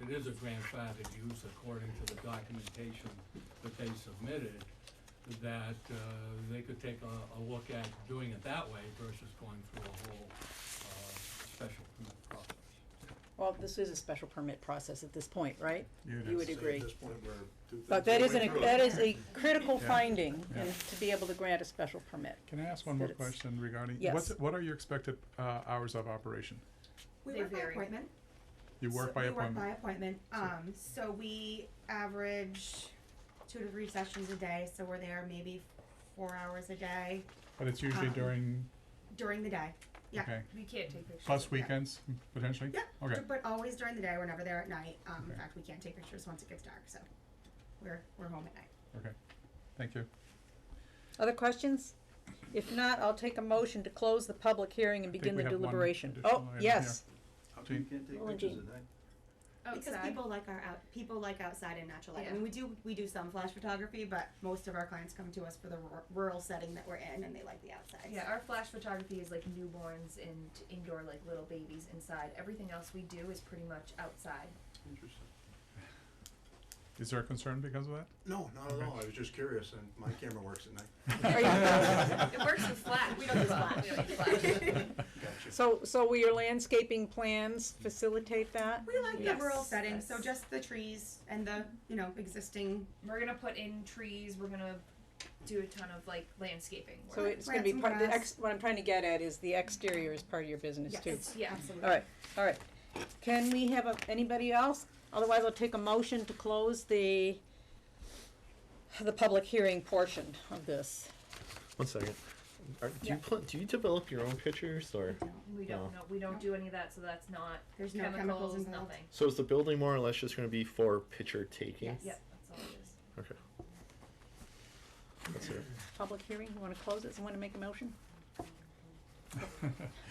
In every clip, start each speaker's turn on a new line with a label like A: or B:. A: it is a grandfathered use according to the documentation that they submitted, that uh, they could take a, a look at doing it that way versus going through a whole uh, special permit process.
B: Well, this is a special permit process at this point, right?
C: It
B: You
C: is.
B: would agree.
D: At this point, we're two
B: But
D: thirds
B: that
D: of
B: is
D: the way
B: an,
D: through
B: that
D: it.
B: is a critical
C: Yeah.
B: finding,
C: Yeah.
B: and to be able to grant a special permit.
C: Can I ask one more
B: That it's-
C: question regarding, what's,
B: Yes.
C: what are your expected, uh, hours of operation?
E: We
F: They
E: work by
F: vary.
E: appointment.
C: You
E: So
C: work by
E: We work by
C: appointment?
E: appointment, um, so we average two to three sessions a day, so we're there maybe four hours a day
C: But it's usually
E: um,
C: during,
E: during the day, yeah.
C: okay,
F: We can't take pictures.
C: plus
F: of that.
C: weekends, potentially?
E: Yeah,
C: Okay,
E: but always during the day, we're never there at night, um, in
C: Okay.
E: fact, we can't take pictures once it gets dark, so we're, we're home at night.
C: okay, thank you.
B: Other questions? If not, I'll take a motion to close the public hearing and
C: think
B: begin
C: we
B: the
C: have one
B: deliberation.
C: additional
B: Oh,
C: item here.
B: yes.
D: How come you can't
B: Well,
D: take pictures
B: Jean.
D: of that?
E: Because
F: Outside.
E: people like our out, people like outside and natural light. I
F: Yeah.
E: mean, we do we do some flash photography, but most of our clients come to us for the rur- rural setting that we're in, and they like the outside.
F: Yeah, our flash photography is like newborns and indoor, like little babies inside. Everything else we do is pretty much outside.
D: Interesting.
C: Is there a concern because of that?
D: No, not at
C: Okay.
D: all, I was just curious, and my camera works at night.
B: Are you-
F: It works with flash.
E: We don't use
F: but
E: flash.
F: we don't use flash.
D: Gotcha.
B: So, so will your landscaping plans facilitate that?
E: We like the
F: Yes,
E: rural setting,
F: yes.
E: so just the trees and the you know existing.
F: We're gonna put in trees. We're gonna do a ton of like landscaping.
B: So
F: work.
B: it's gonna be
E: Plants and
B: part, the
E: grass.
B: ex, what I'm trying to get at is the exterior is part of your business
E: Yes.
B: too.
F: yeah.
E: absolutely.
B: All right, all right. Can we have a- anybody else? Otherwise, I'll take a motion to close the, the public hearing portion of this.
G: One second. Are, do
B: Yeah.
G: you pl- do you develop your own pictures or?
F: We
G: No.
F: don't know. We don't do any of that, so that's not
E: There's no
F: chemicals,
E: chemicals involved.
F: nothing.
G: So is the building more or less just going to be for picture taking?
E: Yes.
F: Yep, that's all it is.
G: Okay. That's it.
B: Public hearing, you wanna close it? Someone to make a motion?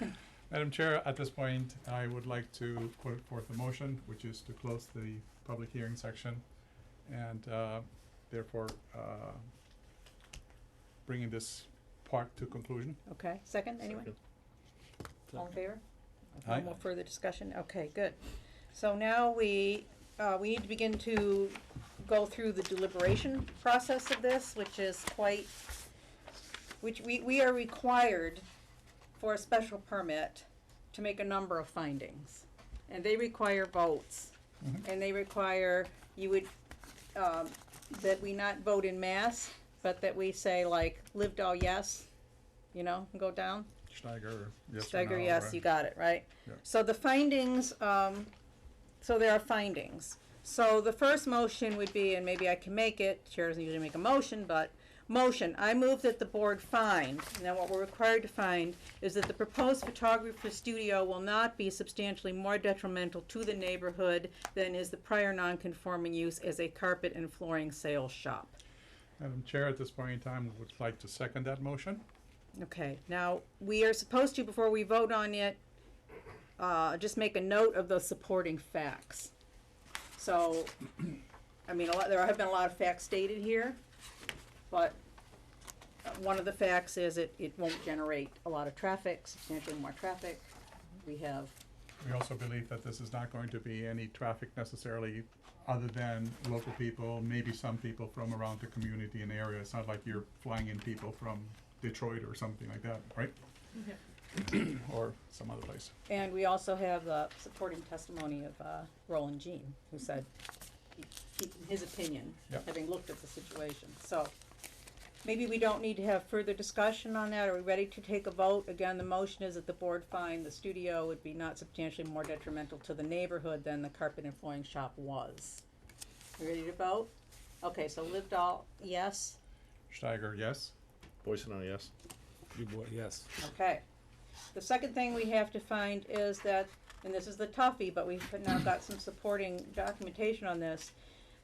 C: Madam Chair, at this point, I would like to put forth a motion, which is to close the public hearing section and uh, therefore uh, bringing this part to conclusion.
B: Okay, second, anyone?
G: Second.
B: All in favor?
C: Aye.
B: No more further discussion? Okay, good. So now we, uh, we need to begin to go through the deliberation process of this, which is quite, which we, we are required for a special permit to make a number of findings. And they require votes.
C: Mhm.
B: And they require, you would, um, that we not vote in mass, but that we say like, lived all yes, you know, and go down.
C: Steiger, yes or
B: Steiger,
C: no,
B: yes,
C: or-
B: you got it, right?
C: Yeah.
B: So the findings, um, so there are findings. So the first motion would be, and maybe I can make it, chair doesn't usually make a motion, but, motion, I move that the board find, now what we're required to find, is that the proposed photographer studio will not be substantially more detrimental to the neighborhood than is the prior non-conforming use as a carpet and flooring sales shop.
C: Madam Chair, at this point in time, would like to second that motion.
B: Okay, now, we are supposed to, before we vote on it, uh, just make a note of the supporting facts. So, I mean, a lot, there have been a lot of facts stated here, but uh, one of the facts is it, it won't generate a lot of traffic, substantially more traffic. We have,
C: We also believe that this is not going to be any traffic necessarily other than local people, maybe some people from around the community and area. It's not like you're flying in people from Detroit or something like that, right? Or some other place.
B: and we also have, uh, supporting testimony of, uh, Roland Jean, who said, he- he- in his opinion,
C: Yeah.
B: having looked at the situation, so. Maybe we don't need to have further discussion on that, are we ready to take a vote? Again, the motion is that the board find the studio would be not substantially more detrimental to the neighborhood than the carpet and flooring shop was. You ready to vote? Okay, so Livedall, yes,
C: Steiger, yes?
G: Boys and I, yes.
H: You boy, yes.
B: okay. The second thing we have to find is that, and this is the toughie, but we've now got some supporting documentation on this,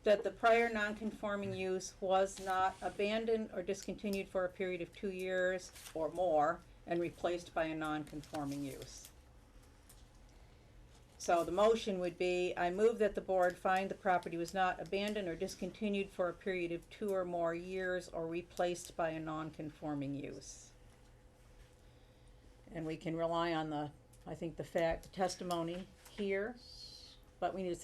B: that the prior non-conforming use was not abandoned or discontinued for a period of two years or more and replaced by a non-conforming use. So the motion would be, I move that the board find the property was not abandoned or discontinued for a period of two or more years or replaced by a non-conforming use. And we can rely on the, I think, the fact, testimony here, but we need to